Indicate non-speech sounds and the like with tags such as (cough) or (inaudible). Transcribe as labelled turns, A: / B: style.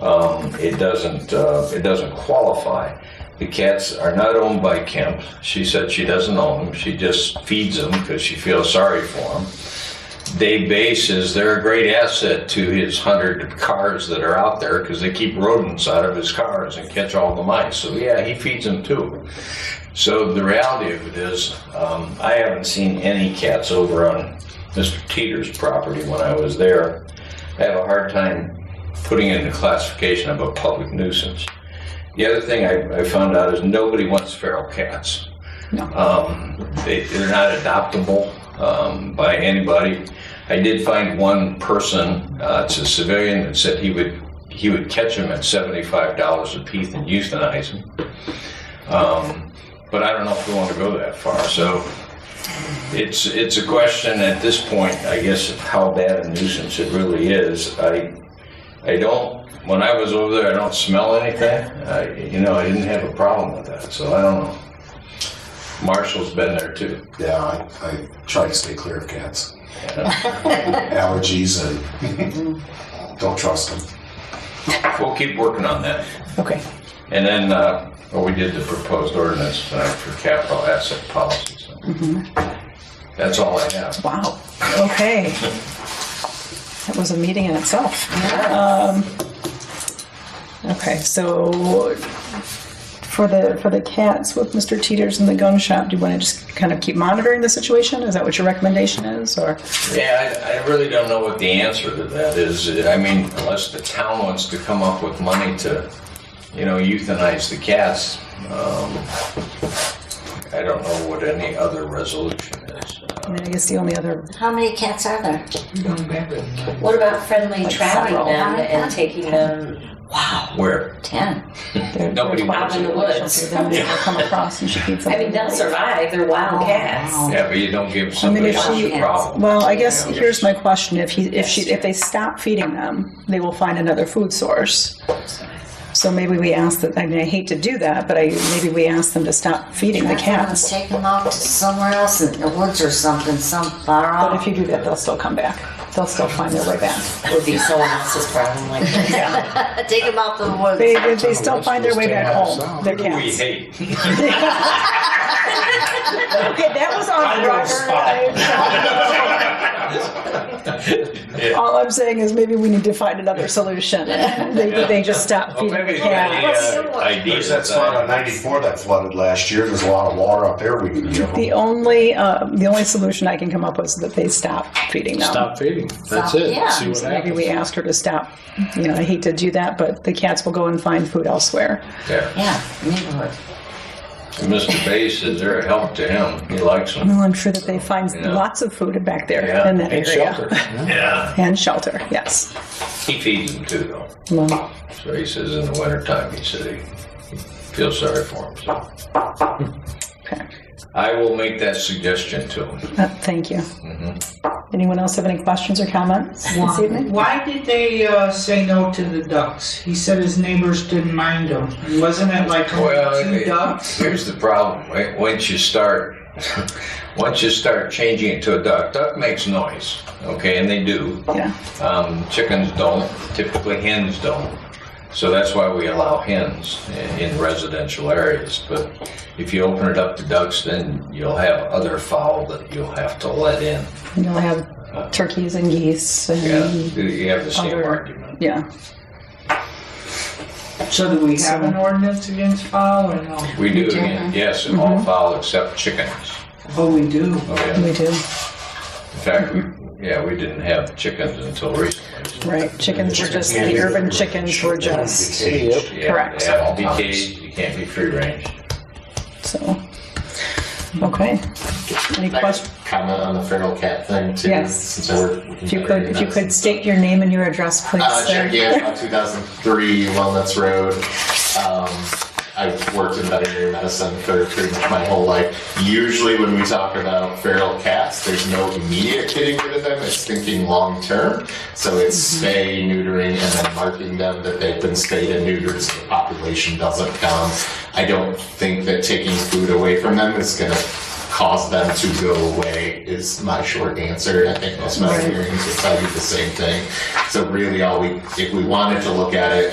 A: um, it doesn't, uh, it doesn't qualify. The cats are not owned by Kemp. She said she doesn't own them. She just feeds them because she feels sorry for them. Dave Bass is, they're a great asset to his hundred cars that are out there because they keep rodents out of his cars and catch all the mice. So yeah, he feeds them too. So the reality of it is, um, I haven't seen any cats over on Mr. Teeter's property when I was there. I have a hard time putting it in the classification of a public nuisance. The other thing I, I found out is nobody wants feral cats. Um, they, they're not adoptable um, by anybody. I did find one person, uh, it's a civilian, that said he would he would catch them at seventy-five dollars a piece and euthanize them. Um, but I don't know if we want to go that far. So it's it's a question at this point, I guess, of how bad a nuisance it really is. I I don't. When I was over there, I don't smell anything. I, you know, I didn't have a problem with that, so I don't know. Marshall's been there too.
B: Yeah, I, I try to stay clear of cats. Allergies and don't trust them.
A: We'll keep working on that.
C: Okay.
A: And then, uh, well, we did the proposed ordinance tonight for capital asset policy, so. That's all I have.
C: Wow. Okay. That was a meeting in itself. Um, okay, so for the for the cats with Mr. Teeters and the gun shop, do you want to just kind of keep monitoring the situation? Is that what your recommendation is, or
A: Yeah, I, I really don't know what the answer to that is. I mean, unless the town wants to come up with money to, you know, euthanize the cats. Um, I don't know what any other resolution is.
C: I mean, I guess the only other
D: How many cats are there? What about friendly
E: trapping
D: travel?
E: them and taking them
A: Where?
D: Ten.
C: there,
A: Nobody
E: out
A: wants
E: in
A: it.
E: the
C: shelter
E: woods.
C: that we ever come across, and she feeds them.
E: I mean, they'll survive. They're wild
D: Oh,
E: cats.
A: Yeah, but you don't give somebody
C: if
A: else
C: she-
A: a problem.
C: Well, I guess here's my question: If he, if she, if they stop feeding them, they will find another food source. So maybe we ask that. I mean, I hate to do that, but I maybe we ask them to stop feeding the
D: Let's
C: cats.
D: take them off to somewhere else in the woods or something, some far
C: But if
D: off.
C: you do that, they'll still come back. They'll still find their way back.
E: Would be someone else's problem. Like that.
D: Take them out to the woods.
C: They, they, they still find their way back home. Their
A: We
C: cats.
A: hate.
C: (laughs) Okay, that was on Robert.
A: Yeah.
C: (laughs) All I'm saying is maybe we need to find another solution. (laughs) They, they just stop
A: Well,
C: feeding
A: maybe
C: the
A: the
C: cats.
A: uh, idea
B: There's that
A: that
B: spot on
A: I-
B: 94 that flooded last year. There's a lot of water up there. We can get them.
C: The only uh, the only solution I can come up with is that they stop feeding them.
F: Stop feeding. That's it.
D: yeah.
F: See what
C: So maybe we
F: happens.
C: ask her to stop. You know, I hate to do that, but the cats will go and find food elsewhere.
A: Yeah.
D: Yeah, neighborhood.
A: Mr. Bass is there a help to him. He likes them.
C: (laughs) Well, I'm sure that they find
A: Yeah.
C: lots of food back there
A: Yeah,
C: in that
F: And
C: area.
F: shelter.
A: Yeah.
C: And shelter, yes.
A: He feeds them too, though.
C: Well,
A: So he says in the wintertime, he said he feels sorry for him. So
C: okay.
A: I will make that suggestion to him.
C: Uh, thank you. Anyone else have any questions or comments this evening?
G: Why did they uh, say no to the ducks? He said his neighbors didn't mind him. Wasn't it like only
A: Well,
G: two
A: it-
G: ducks?
A: here's the problem. Wa- Once you start, (laughs) once you start changing it to a duck, duck makes noise. Okay, and they do.
C: Yeah.
A: Um, chickens don't, typically hens don't. So that's why we allow hens in, in residential areas. But if you open it up to ducks, then you'll have other fowl that you'll have to let in.
C: You'll have turkeys and geese
A: Yeah,
C: and
A: you have the same
C: Mm-hmm. other-
A: argument.
C: yeah.
G: So do we have an ordinance against fowl or no?
A: We do, again, yes, in all fowl except chickens.
G: Oh, we do.
A: Oh, yeah.
C: We do.
A: In fact, we, yeah, we didn't have chickens until recently.
C: Right. Chickens were just the urban chickens were just
B: Yep.
A: Yeah,
C: Correct.
A: They have to be caged, you can't be free range.
C: so okay. Any
H: Can I
C: questions?
H: just Comment on the feral cat thing too.
C: Yes.
H: Since I work. with
C: If you could, if you
H: veterinarians.
C: could state your name and your address, please,
H: Uh,
C: sir.
H: Jackie Ashbaugh, 2003 Walnuts Road. Um, I've worked in veterinary medicine for pretty much my whole life. Usually, when we talk about feral cats, there's no immediate getting rid of them. It's thinking long term. So it's spay, neutering, and then marking them that they've been spayed and neutered so the population doesn't come. I don't think that taking food away from them is going to cause them to go away is my short answer. I think most veterinarians will tell you the same thing. So really all we, if we wanted to look at it